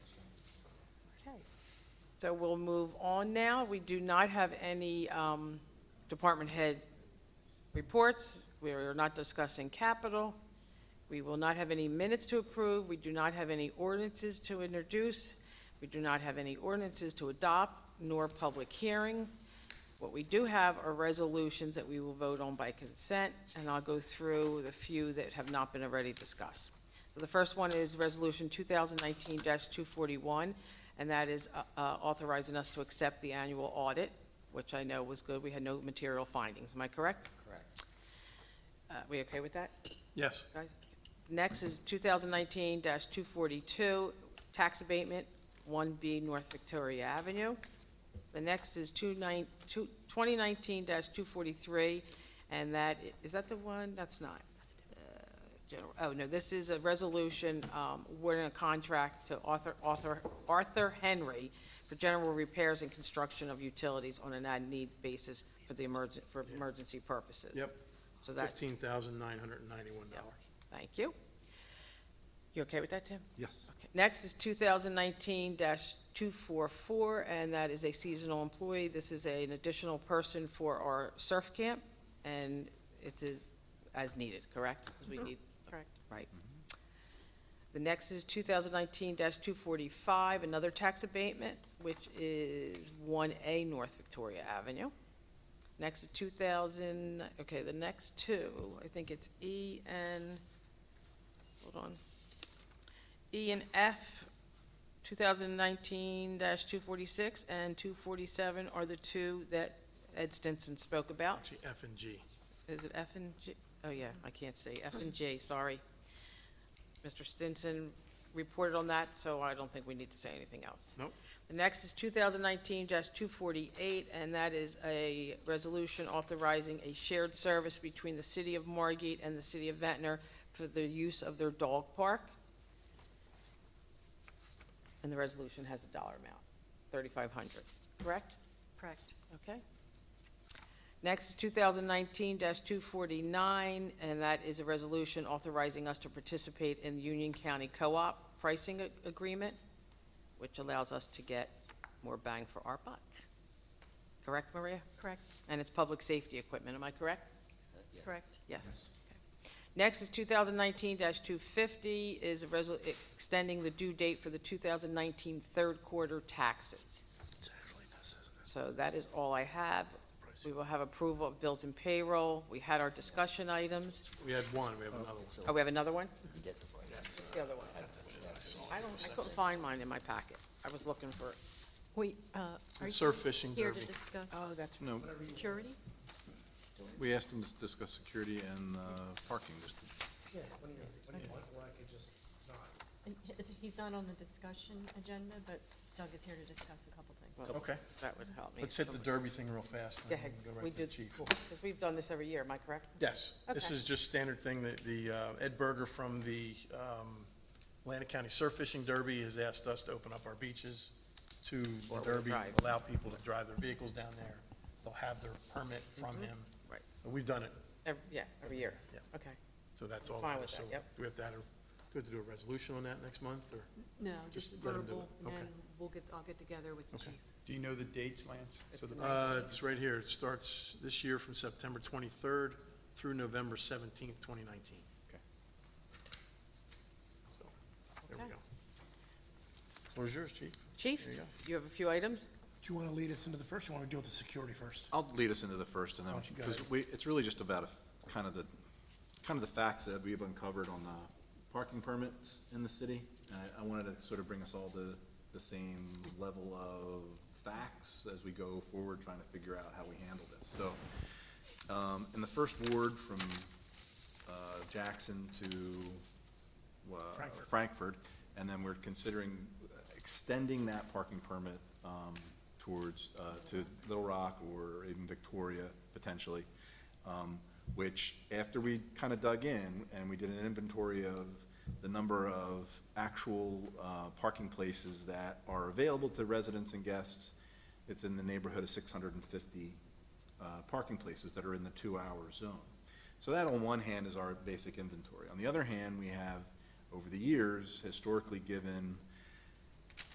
So we'll move on now. We do not have any um, department head reports. We are not discussing capital. We will not have any minutes to approve. We do not have any ordinances to introduce. We do not have any ordinances to adopt, nor public hearing. What we do have are resolutions that we will vote on by consent, and I'll go through the few that have not been already discussed. So the first one is Resolution 2019-241, and that is uh, uh, authorizing us to accept the annual audit, which I know was good. We had no material findings. Am I correct? Correct. Uh, We okay with that? Yes, guys? Next is 2019-242, tax abatement, 1B North Victoria Avenue. The next is 29 two- 2019-243, and that, i- is that the one? That's not. Uh, general- Oh, no, this is a resolution, um, awarding a contract to Arthur- Arthur Arthur Henry for general repairs and construction of utilities on an as-need basis for the emergen, for emergency purposes. yep, So that, fifteen thousand nine hundred and ninety-one dollars. Thank you. You okay with that, Tim? Yes. Okay. Next is 2019-244, and that is a seasonal employee. This is a- an additional person for our surf camp, and it is as needed, correct? 'Cause we need- Correct. Right. The next is 2019-245, another tax abatement, which is 1A North Victoria Avenue. Next is 2000, okay, the next two, I think it's E and, hold on. E and F, 2019-246 and 247 are the two that Ed Stinson spoke about. Actually, F and G. Is it F and G? Oh, yeah, I can't say. F and J, sorry. Mr. Stinson reported on that, so I don't think we need to say anything else. Nope. The next is 2019-248, and that is a resolution authorizing a shared service between the City of Margate and the City of Ventnor for the use of their dog park. And the resolution has a dollar amount, 3,500, correct? Correct. Okay. Next is 2019-249, and that is a resolution authorizing us to participate in the Union County Co-op pricing a- agreement, which allows us to get more bang for our buck. Correct, Maria? Correct. And it's public safety equipment, am I correct? Correct. Yes. Okay. Next is 2019-250, is a resol, e, extending the due date for the 2019 third quarter taxes. So that is all I have. We will have approval of bills and payroll. We had our discussion items. We had one, we have another one. Oh, we have another one? What's the other one? I don't, I couldn't find mine in my packet. I was looking for, it. We, uh, are you Surf fishing here to derby. discuss oh, that's, No, security? we asked them to discuss security and uh, parking. Just- And he- He's not on the discussion agenda, but Doug is here to discuss a couple things. well, Okay, that would help me. let's hit the derby thing real fast. and Go then ahead. go right We to the did, chief. because we've done this every year, am I correct? Yes, this Okay. is just standard thing that the, uh, Ed Berger from the um, Atlantic County Surf Fishing Derby has asked us to open up our beaches to the Four-wheel derby, drive. allow people to drive their vehicles down there. They'll have their permit from Mm-hmm. him. Right. So we've done it, Ev- Yeah, every year. Yeah. Okay. so that's all. Fine that with is. that, So yep. Do we have to, add a- do we have to do a resolution on that next month, or? No, Just just let him do verbal, it. and Okay. then we'll get, I'll get together with the Okay. chief. Do you know the dates, Lance? So the Uh, It's right here. It starts this year from September 23rd through November 17th, 2019. Okay. So, there we Okay. go. Where's yours, Chief? Chief, There you go. you have a few items? Do you want to lead us into the first, or you want to deal with the security first? I'll lead us into the first and then, Why don't you go because ahead. we, it's really just about a- kind of the, kind of the facts that we've uncovered on the parking permits in the city. And I- I wanted to sort of bring us all to the same level of facts as we go forward, trying to figure out how we handle this. So, um, in the first ward from uh, Jackson to uh, Frankfurt. Frankfurt, and then we're considering extending that parking permit um, towards, uh, to Little Rock or even Victoria potentially, um, which after we kind of dug in and we did an inventory of the number of actual uh, parking places that are available to residents and guests, it's in the neighborhood of 650 uh, parking places that are in the two-hour zone. So that on one hand is our basic inventory. On the other hand, we have, over the years, historically given